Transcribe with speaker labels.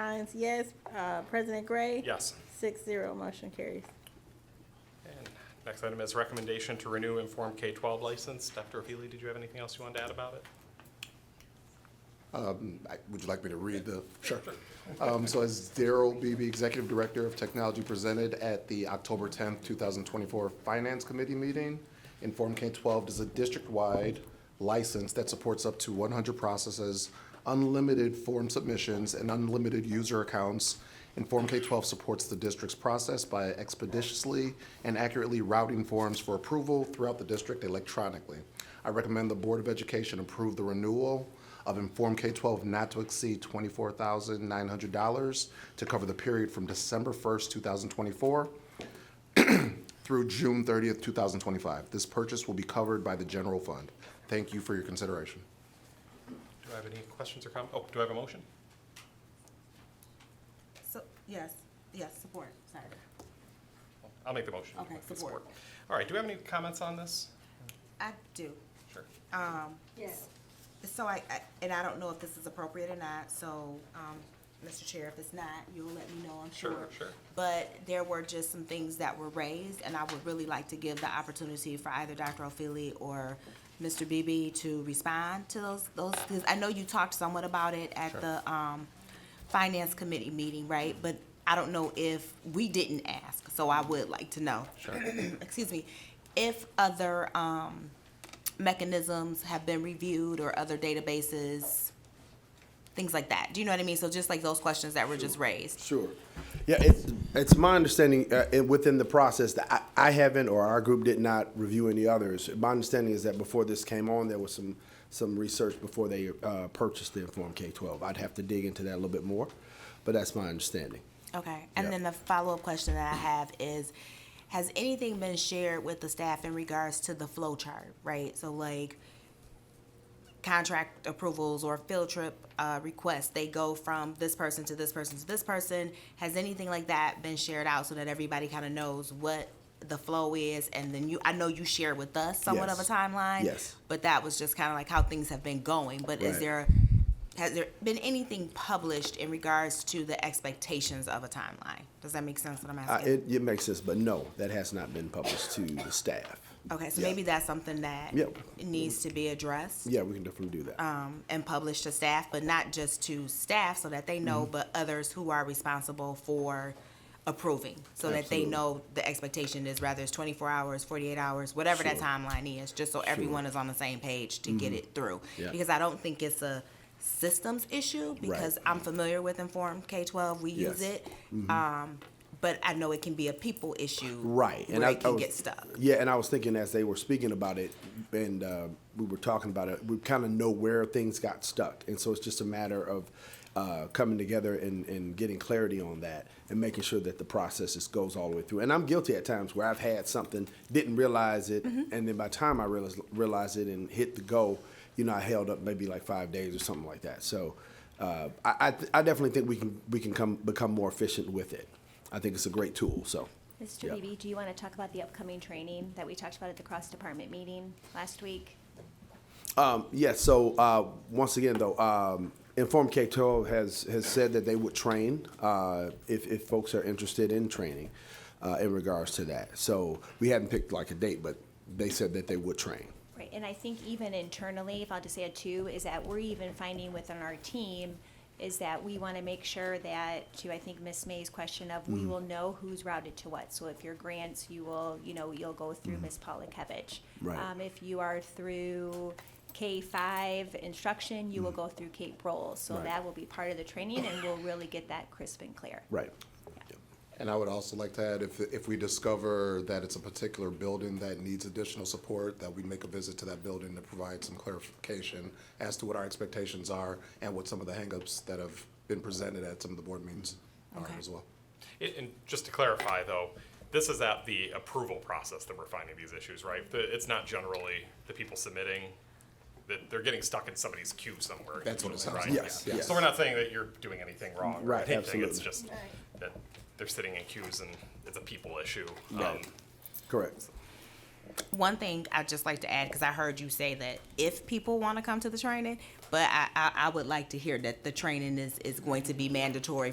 Speaker 1: Collins, yes. Uh, President Gray?
Speaker 2: Yes.
Speaker 1: Six zero, motion carries.
Speaker 2: And next item is recommendation to renew Inform K-12 license. Dr. O'Healy, did you have anything else you wanted to add about it?
Speaker 3: I- Would you like me to read the? Sure. Um, So as Daryl Beebe, Executive Director of Technology, presented at the October 10th, 2024 Finance Committee meeting, Inform K-12 is a district-wide license that supports up to 100 processes, unlimited form submissions, and unlimited user accounts. Inform K-12 supports the district's process by expeditiously and accurately routing forms for approval throughout the district electronically. I recommend the Board of Education approve the renewal of Inform K-12 not to exceed $24,900 to cover the period from December 1st, 2024 through June 30th, 2025. This purchase will be covered by the general fund. Thank you for your consideration.
Speaker 2: Do I have any questions or comments? Oh, do I have a motion?
Speaker 4: So, yes, yes, support, sorry.
Speaker 2: I'll make the motion.
Speaker 4: Okay,
Speaker 2: With
Speaker 4: support.
Speaker 2: All right, do we have any comments on this?
Speaker 4: I do.
Speaker 2: Sure.
Speaker 4: Um,
Speaker 5: Yes.
Speaker 4: so I, I, and I don't know if this is appropriate or not, so, um, Mr. Chair, if it's not, you'll let me know, I'm
Speaker 2: Sure,
Speaker 4: sure.
Speaker 2: sure.
Speaker 4: But there were just some things that were raised, and I would really like to give the opportunity for either Dr. O'Feely or Mr. Beebe to respond to those, those, because I know you talked somewhat about it at the, um, Finance Committee meeting, right? But I don't know if, we didn't ask, so I would like to know. Sure. Excuse me, if other, um, mechanisms have been reviewed or other databases, things like that. Do you know what I mean? So just like those questions that were just raised.
Speaker 6: Sure. Yeah, it's, it's my understanding, uh, it- within the process, that I, I haven't, or our group did not review any others. My understanding is that before this came on, there was some, some research before they, uh, purchased the Inform K-12. I'd have to dig into that a little bit more, but that's my understanding.
Speaker 4: Okay. And
Speaker 6: Yeah.
Speaker 4: then the follow-up question that I have is, has anything been shared with the staff in regards to the flow chart, right? So like contract approvals or field trip uh, requests, they go from this person to this person to this person. Has anything like that been shared out so that everybody kind of knows what the flow is? And then you, I know you share with us somewhat of a
Speaker 6: Yes.
Speaker 4: timeline.
Speaker 6: Yes.
Speaker 4: But that was just kind of like how things have been going. But is
Speaker 6: Right.
Speaker 4: there, has there been anything published in regards to the expectations of a timeline? Does that make sense what I'm
Speaker 6: Uh,
Speaker 4: asking?
Speaker 6: it, it makes sense, but no, that has not been published to the staff.
Speaker 4: Okay, so
Speaker 6: yeah.
Speaker 4: maybe that's something that
Speaker 6: Yeah.
Speaker 4: needs to be addressed.
Speaker 6: Yeah, we can definitely do that.
Speaker 4: um, and publish to staff, but not just to staff so that they know,
Speaker 6: Mm-hmm.
Speaker 4: but others who are responsible for approving, so that they
Speaker 6: Absolutely.
Speaker 4: know the expectation is rather it's twenty-four hours, forty-eight hours, whatever that
Speaker 6: Sure. Mm-hmm.
Speaker 4: timeline is, just so everyone is on the same page to get it through.
Speaker 6: Yeah.
Speaker 4: Because I don't think it's a systems issue, because I'm familiar with Inform K-12, we use
Speaker 6: Yes. Mm-hmm.
Speaker 4: it. Um, but I know it can be a people issue.
Speaker 6: Right. oh,
Speaker 4: Where it can
Speaker 6: was-
Speaker 4: get stuck.
Speaker 6: Yeah, and I was thinking as they were speaking about it and uh, we were talking about it, we kind of know where things got stuck. And so it's just a matter of uh, coming together and, and getting clarity on that and making sure that the process just goes all the way through. And I'm guilty at times where I've had something, didn't realize it,
Speaker 4: Mm-hmm.
Speaker 6: and then by the time I realized, realized it and hit the go, you know, I held up maybe like five days or something like that. So uh, I, I, th- I definitely think we can, we can come, become more efficient with it. I think it's a great tool. So.
Speaker 5: Mr.
Speaker 6: Yeah.
Speaker 5: Beebe, do you want to talk about the upcoming training that we talked about at the cross-department meeting last week?
Speaker 6: Um, yes. so uh, once again, though, um, Inform K twelve has has said that they would train uh, if if folks are interested in training uh, in regards to that. So we haven't picked like a date, but they said that they would train.
Speaker 5: Right, and I think even internally, if I'll just add two, is that we're even finding within our team is that we want to make sure that, to I think Miss May's question of,
Speaker 6: Mm-hmm.
Speaker 5: we will know who's routed to what. So if your grants, you will, you know, you'll go through Miss Polakevich.
Speaker 6: Mm-hmm. Right.
Speaker 5: Um, if you are through K five instruction, you will go through Kate Rolls. So
Speaker 6: Mm-hmm. Right.
Speaker 5: that will be part of the training and we'll really get that crisp and clear.
Speaker 6: Right.
Speaker 3: And I would also like to add, if, if we discover that it's a particular building that needs additional support, that we make a visit to that building to provide some clarification as to what our expectations are and what some of the hangups that have been presented at some of the board meetings are
Speaker 4: Okay.
Speaker 3: as well.
Speaker 2: And- And just to clarify, though, this is at the approval process that we're finding these issues, right? The- It's not generally the people submitting, that they're getting stuck in somebody's queue somewhere.
Speaker 3: That's what it
Speaker 2: usually,
Speaker 3: sounds
Speaker 2: right?
Speaker 3: like.
Speaker 6: Yes,
Speaker 2: Yeah.
Speaker 6: yes.
Speaker 2: So we're not saying that you're doing anything wrong. or
Speaker 6: Right,
Speaker 2: anything. It's
Speaker 6: absolutely.
Speaker 2: just that they're sitting in queues and it's a people issue.
Speaker 6: Right.
Speaker 2: Um,
Speaker 6: Correct.
Speaker 4: one thing I'd just like to add, because I heard you say that if people want to come to the training, but I, I, I would like to hear that the training is, is going to be mandatory